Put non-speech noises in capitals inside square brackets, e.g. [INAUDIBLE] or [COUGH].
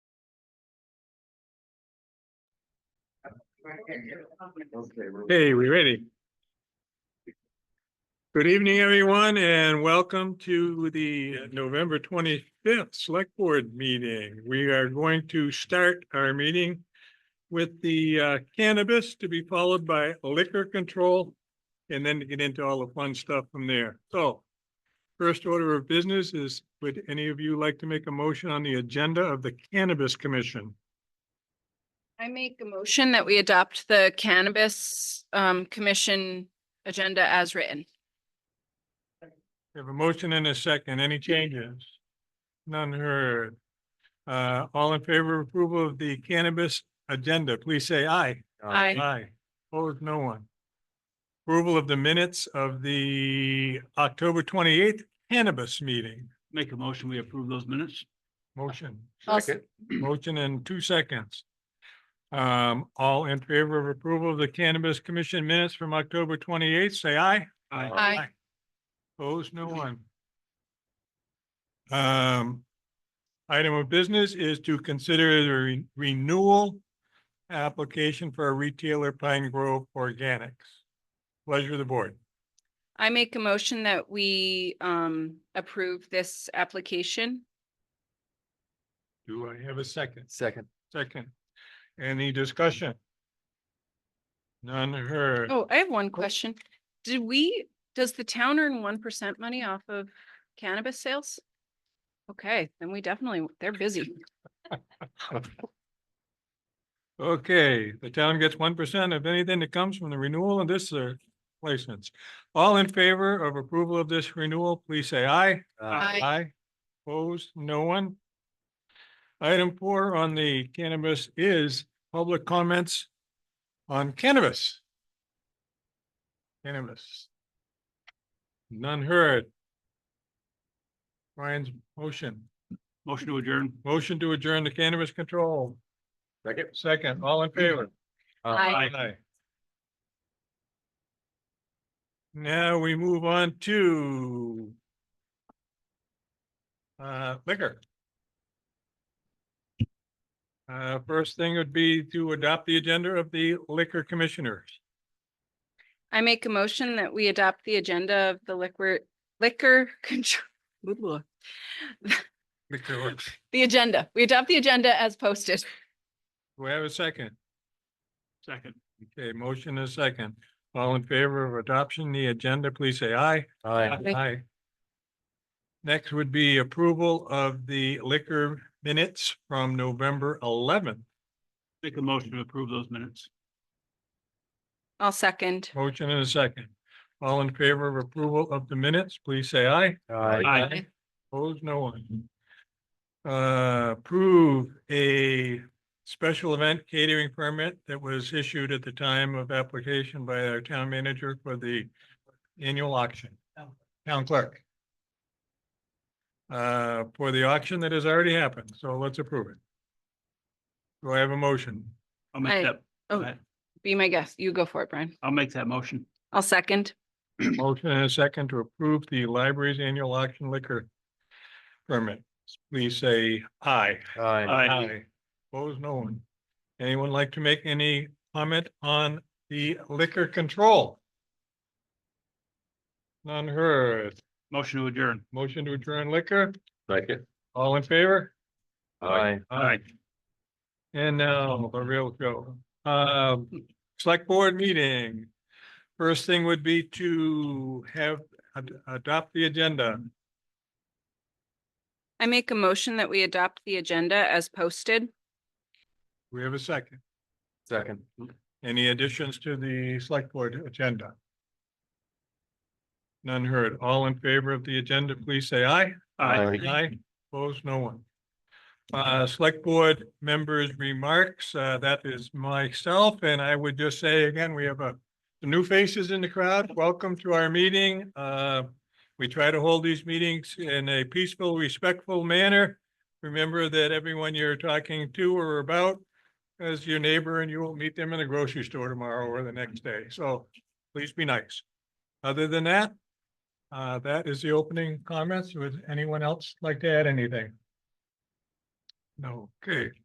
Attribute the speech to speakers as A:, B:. A: Hey, we ready? Good evening, everyone, and welcome to the November twenty-fifth Select Board meeting. We are going to start our meeting with the uh, cannabis to be followed by liquor control and then to get into all the fun stuff from there. So first order of business is, would any of you like to make a motion on the agenda of the Cannabis Commission?
B: I make a motion that we adopt the cannabis um commission agenda as written.
A: We Have a motion and a second. Any changes? None heard. Uh, all in favor of approval of the cannabis agenda, please say aye.
B: Aye.
A: Aye. Opposed, no one. Approval of the minutes of the October twenty-eighth cannabis meeting.
C: Make a motion, we approve those minutes.
A: Motion,
B: I'll s-
C: Second.
A: motion in two seconds. Um, all in favor of approval of the cannabis commission minutes from October twenty-eighth, say aye.
C: Aye.
B: Aye.
A: Opposed, no one. Um, item of business is to consider the re- renewal application for a retailer Pine Grove Organics. Pleasure of the board.
B: I make a motion that we um approve this application.
A: Do I have a second?
D: Second.
A: Second. Any discussion? None heard.
B: Oh, I have one question. Did we, does the town earn one percent money off of cannabis sales? Okay, then we definitely, they're busy.
A: Okay, the town gets one percent of anything that comes from the renewal and this uh, placements. All in favor of approval of this renewal, please say aye.
B: Aye.
A: Aye. Opposed, no one. Item four on the cannabis is public comments on cannabis. Cannabis. None heard. Brian's motion,
C: Motion to adjourn.
A: motion to adjourn the cannabis control.
D: Second.
A: Second, all in favor?
B: Aye.
A: Aye. Now we move on to uh, liquor. Uh, first thing would be to adopt the agenda of the liquor commissioners.
B: I make a motion that we adopt the agenda of the liquor liquor [LAUGHS] control.
A: Liquor.
B: The agenda. We adopt the agenda as posted.
A: Do we have a second?
C: Second.
A: Okay, motion is second. All in favor of adoption, the agenda, please say aye.
D: Aye.
B: Aye.
A: Aye. Next would be approval of the liquor minutes from November eleventh.
C: Make a motion to approve those minutes.
B: I'll second.
A: Motion and a second. All in favor of approval of the minutes, please say aye.
C: Aye.
A: Opposed, no one. Uh, approve a special event catering permit that was issued at the time of application by our town manager for the annual auction. Town clerk. Uh, for the auction that has already happened, so let's approve it. Do I have a motion?
C: I'll
B: Aye.
C: make that.
B: Oh.
C: Aye.
B: Be my guest. You go for it, Brian.
C: I'll make that motion.
B: I'll second.
A: Motion and a second to approve the library's annual auction liquor permit. Please say aye.
D: Aye.
C: Aye.
A: Opposed, no one. Anyone like to make any comment on the liquor control? None heard.
C: Motion to adjourn.
A: Motion to adjourn liquor,
D: Second.
A: all in favor?
D: Aye.
C: Aye.
A: And now the real show. Um, select board meeting. First thing would be to have, ad- adopt the agenda.
B: I make a motion that we adopt the agenda as posted.
A: We have a second.
D: Second.
A: Any additions to the select board agenda? None heard. All in favor of the agenda, please say aye.
D: Aye.
A: Aye. Opposed, no one. Uh, select board members' remarks, uh, that is myself, and I would just say again, we have a the new faces in the crowd. Welcome to our meeting. Uh, we try to hold these meetings in a peaceful, respectful manner. Remember that everyone you're talking to or about is your neighbor and you will meet them in the grocery store tomorrow or the next day. So please be nice. Other than that, uh, that is the opening comments. Would anyone else like to add anything? No, okay.